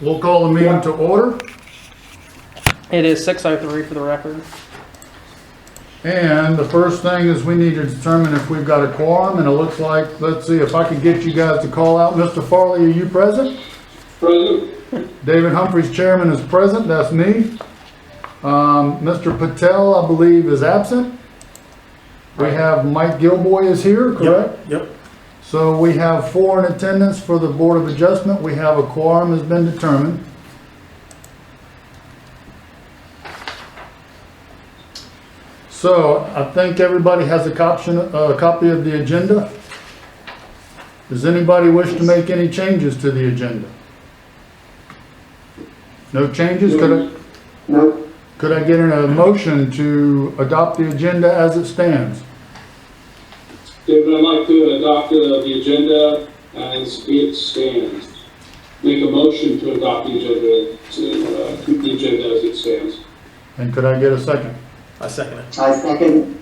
We'll call the meeting to order, It is 6:03 for the record. and the first thing is we need to determine if we've got a quorum, and it looks like, let's see, if I could get you guys to call out, Mr. Farley, are you present? Present. David Humphries, chairman, is present, that's me. Um, Mr. Patel, I believe, is absent. We have Mike Gilboy is here, correct? Yep, So we have four in attendance for the Board of Adjustment. We have a quorum has been determined. So I think everybody has a copy, a copy of the agenda. Does anybody wish to make any changes to the agenda? No changes? Could I, No. could I get a motion to adopt the agenda as it stands? David, I'd like to adopt uh, the agenda as it stands. Make a motion to adopt the agenda, to uh, keep the agenda as it stands. And could I get a second? I second it. I second.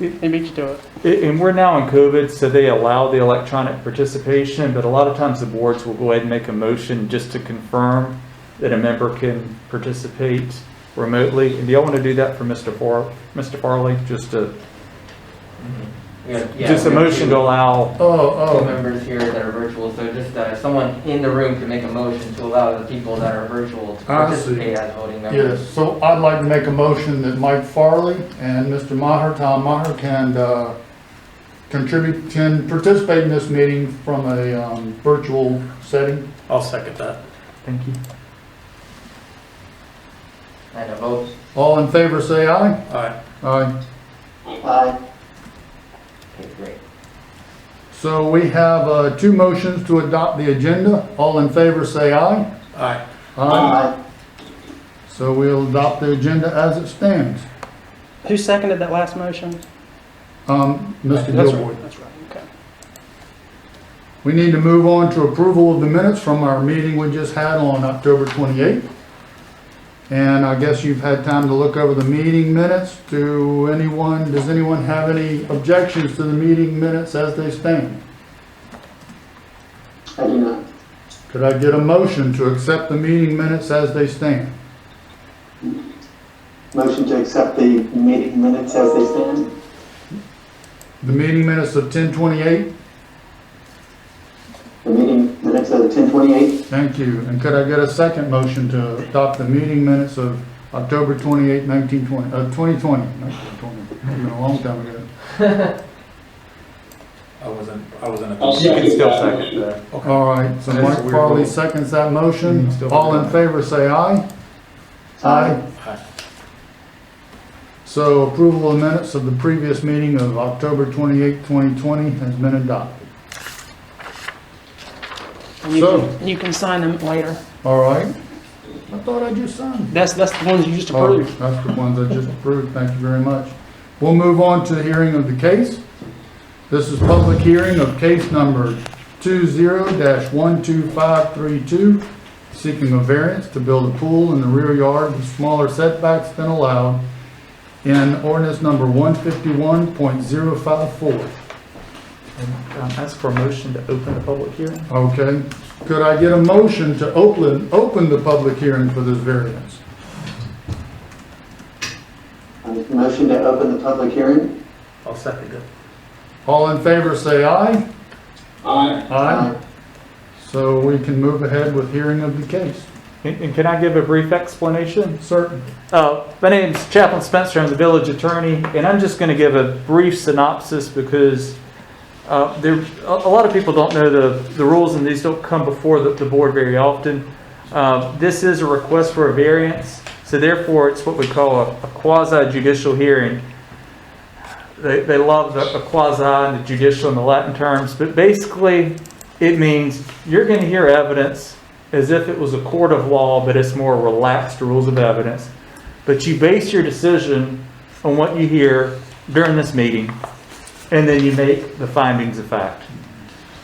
They beat you to it. A- And we're now in COVID, so they allow the electronic participation, but a lot of times the boards will go ahead and make a motion just to confirm that a member can participate remotely. And do y'all want to do that for Mr. Far, Mr. Farley? Just a, Mm-hmm. just a motion to allow, Oh, oh. Two members here that are virtual, so just uh, someone in the room can make a motion to allow the people that are virtual to Ah, I see. participate as voting members. Yes, so I'd like to make a motion that Mike Farley and Mr. Maher, Tom Maher, can uh, contribute, can participate in this meeting from a um, virtual setting. I'll second that. thank you. And a vote. All in favor, say aye. All right, Aye. Aye. Okay, great. So we have uh, two motions to adopt the agenda. All in favor, say aye. all right. Aye. So we'll adopt the agenda as it stands. Who seconded that last motion? Um, Mr. That's Gilboy, right. That's right, okay. we need to move on to approval of the minutes from our meeting we just had on October 28th. And I guess you've had time to look over the meeting minutes. Do anyone, does anyone have any objections to the meeting minutes as they stand? I do not. Could I get a motion to accept the meeting minutes as they stand? Motion to accept the meeting minutes as they stand? The meeting minutes of 10:28, The meeting minutes of ten twenty-eight? thank you. And could I get a second motion to adopt the meeting minutes of October 28, 1920, uh, 2020, 1920, it's been a long time ago. I wasn't, I wasn't. I'll You second can still that second motion. that. All right, so That's Mike a weird Farley little- seconds that motion. Mm, still All in got favor, say aye. So approval of minutes of the previous meeting of October 28, 2020 has been adopted. And you So- can- You can sign them later. All right? I thought I just signed. That's, that's the ones you just Oh, approved. That's the ones I just approved, thank you very much. We'll move on to the hearing of the case. This is public hearing of case number 20-12532, seeking a variance to build a pool in the rear yard with smaller setbacks than allowed in ordinance number 151.054. And um, ask for a motion to open the public hearing. Okay, could I get a motion to open, open the public hearing for this variance? Motion to open the public hearing? I'll second it. All in favor, say aye. Aye. So we can move ahead with hearing of the case. And and can I give a brief explanation? Certain. Uh, My name's Chaplain Spencer, I'm the village attorney, and I'm just going to give a brief synopsis because uh, there, a a lot of people don't know the, the rules, and these don't come before the, the board very often. Uh, This is a request for a variance, so therefore it's what we call a a quasi judicial hearing. They, they love the the quasi and the judicial in the Latin terms, but basically it means you're going to hear evidence as if it was a court of law, but it's more relaxed rules of evidence. But you base your decision on what you hear during this meeting, and then you make the findings of fact.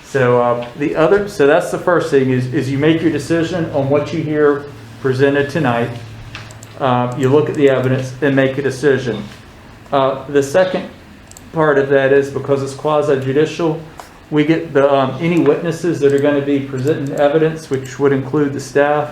So uh, the other, so that's the first thing is, is you make your decision on what you hear presented tonight. Uh, you look at the evidence and make a decision. Uh, the second part of that is because it's quasi judicial, We get the, um, any witnesses that are gonna be presenting evidence, which would include the staff,